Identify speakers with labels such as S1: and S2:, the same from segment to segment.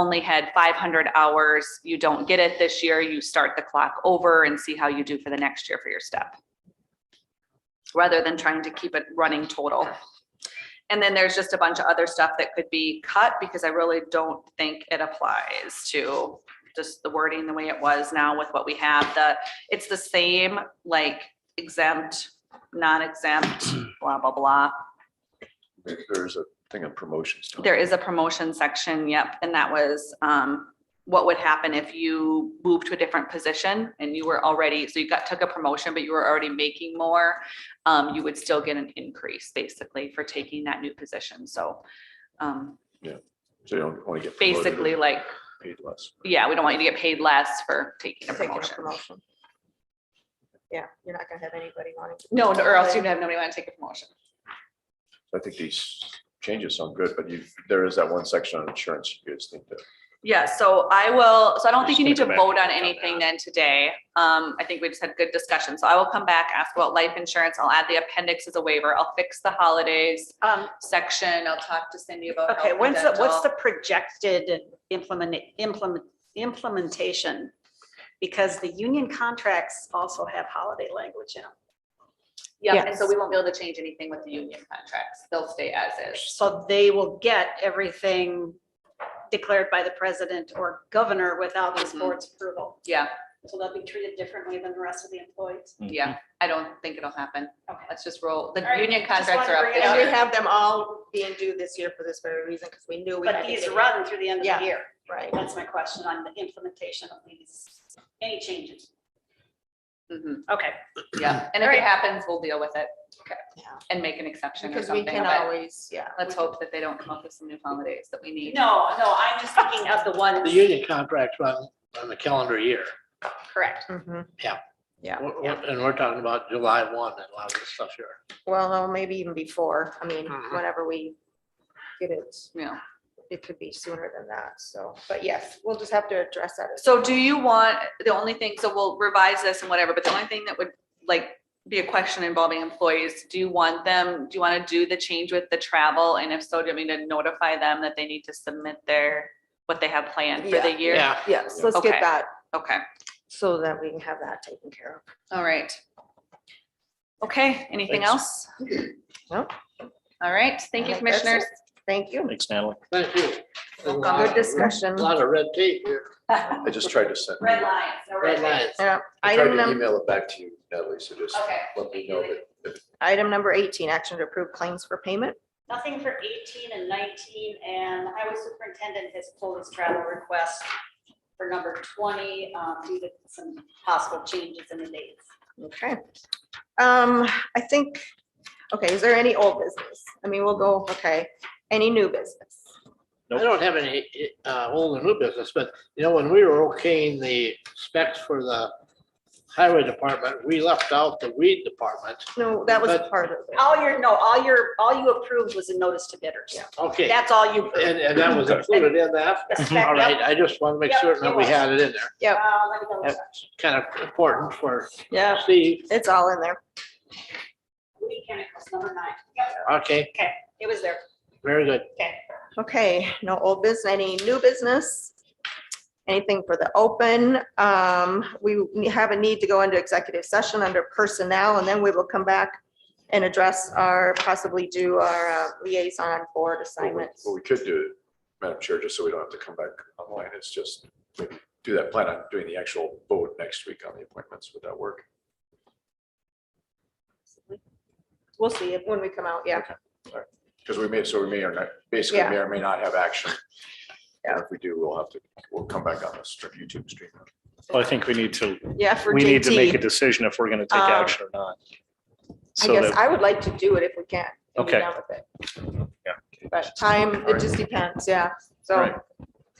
S1: only had five hundred hours, you don't get it this year, you start the clock over and see how you do for the next year for your step. Rather than trying to keep it running total. And then there's just a bunch of other stuff that could be cut because I really don't think it applies to just the wording the way it was now with what we have, the, it's the same, like exempt, non-exempt, blah, blah, blah.
S2: Maybe There's a thing on promotions. Tony.
S1: There is a promotion section, yep, and that was, um, what would happen if you moved to a different position and you were already, so you got, took a promotion, but you were already making more. Um, you would still get an increase basically for taking that new position, so, um,
S2: So you don't want to get. promoted or
S1: basically like,
S2: Paid less.
S1: yeah, we don't want you to get paid less for taking a
S3: Taking a
S1: promotion.
S3: promotion. Yeah, you're not gonna have anybody wanting. to-
S1: No, or else you'd have nobody want to take a promotion.
S2: I think these changes sound good, but you, there is that one section on insurance. You guys think that.
S1: Yeah, so I will, so I don't think you need to
S2: Just gonna go
S1: vote
S2: back
S1: on
S2: and
S1: anything then today. Um, I think we just had good discussion, so I will come back, ask about life insurance, I'll add the appendix as a waiver, I'll fix the holidays
S4: Um,
S1: section, I'll talk to Cindy about.
S4: okay,
S1: health and
S4: when's the, what's the
S1: dental.
S4: projected implement, implement, implementation? Because the union contracts also have holiday language in them.
S1: Yeah, and so we won't be able to change anything with the union contracts, they'll stay as is.
S4: So they will get everything declared by the president or governor without this
S1: Mhm.
S4: board's approval.
S1: Yeah,
S4: So they'll be treated differently than the rest of the employees.
S1: yeah, I don't think it'll happen,
S4: Okay.
S1: let's just roll, the
S4: All right,
S1: union
S4: just
S1: contracts
S4: wanted
S1: are
S4: to
S1: up
S4: bring it
S1: this
S4: up.
S3: And we
S1: year.
S3: have them all being due this year for this very reason, because we knew we had
S4: But
S3: to
S4: these
S3: get it.
S4: run through the end of
S3: Yeah.
S4: the year.
S3: Right,
S4: That's my question on the implementation of these, any changes.
S1: Mhm,
S4: Okay.
S1: Yeah, and if it happens, we'll deal with it. Okay.
S3: Yeah.
S1: And make an exception or
S3: because we
S1: something,
S3: can
S1: but
S3: always, yeah.
S1: let's hope that they don't come up with some new holidays that we need.
S4: No, no, I'm just thinking of the ones.
S5: The union contracts run on the calendar year,
S4: Correct.
S3: Mhm.
S5: We're- we're- and we're talking about July one and a lot of this stuff here.
S3: Well, no, maybe even before, I mean,
S1: Mm-hmm.
S5: Mhm.
S3: whenever we get it,
S1: Yeah.
S3: it could be sooner than that, so, but yes, we'll just have to address that. as-
S1: So do you want, the only thing, so we'll revise this and whatever, but the only thing that would like be a question involving employees, do you want them, do you want to do the change with the travel? And if so, do you mean to notify them that they need to submit their, what they have planned for the year?
S5: Yeah,
S3: Yes, let's
S1: Okay.
S3: get that,
S1: Okay,
S3: so that we can have that taken care of.
S1: all right. Okay, anything else?
S3: No.
S1: All right, thank you,
S3: I think that's it.
S1: commissioners.
S3: Thank you.
S6: Thanks, Natalie.
S5: thank you. A lot
S3: Good
S5: of-
S3: discussion.
S5: Lot of red tape here.
S1: Red
S2: I just tried to send.
S1: lines. no
S5: Red lines.
S3: Yeah,
S2: I tried to
S3: item number,
S2: email it back to you, Natalie, so just
S1: Okay.
S2: let me know that if
S3: item number eighteen, action to approve claims for payment.
S4: Nothing for eighteen and nineteen, and the highway superintendent has pulled his travel request for number twenty, um, due to some possible changes in the dates.
S3: Okay. Um, I think, okay, is there any old business? I mean, we'll go, okay, any new business?
S5: I don't have any, uh, old and new business, but you know, when we were okaying the specs for the highway department, we left out the weed department.
S3: No, that was a
S5: But-
S3: part of it.
S4: All your, no, all your, all you approved was a notice to bidders.
S5: Okay,
S4: That's all you. approved.
S5: and, and that was included in that.
S4: The spec-
S5: All right,
S4: yep,
S5: I just want to make
S4: Yep,
S5: certain that we had it in there.
S4: uh, let me double
S5: Yep.
S4: check.
S5: Kind of important for
S3: Yeah,
S5: Steve.
S3: it's all in there.
S4: Weed chemicals, number nine. Yep,
S5: Okay,
S4: It was there.
S5: very good.
S4: Okay.
S3: Okay, no old business, any new business? Anything for the open? Um, we have a need to go into executive session under personnel and then we will come back and address our, possibly do our uh, liaison
S2: What
S3: board
S2: we-
S3: assignments.
S2: what we could do, Madam Chair, just so we don't have to come back online, is just maybe do that, plan on doing the actual vote next week on the appointments. Would that work?
S3: We'll see it when we come out, yeah.
S2: Because we may, so we may or not, basically may or may not have action. And If we do, we'll have to, we'll come back on this YouTube stream.
S6: Well, I think we need to,
S3: Yeah, for
S6: we need to make a
S3: JT.
S6: decision if we're gonna take
S3: Um,
S6: action or not.
S3: I
S6: So
S3: guess
S6: that,
S3: I would like to do it if we can. and be
S6: Okay.
S3: done with it.
S6: Yeah.
S3: But time, it just depends, yeah. So
S6: Right.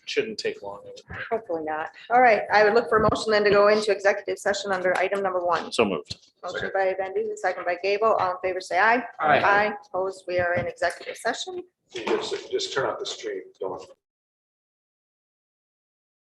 S6: shouldn't take long.
S3: hopefully not. All right, I would look for a motion then to go into executive session under item number one.
S6: So moved.
S3: Motion by Van Duzen, second by Gable. All in favor, say aye.
S5: All right.
S3: Aye, opposed, we are in executive session.
S2: Just, just turn off the stream. Don't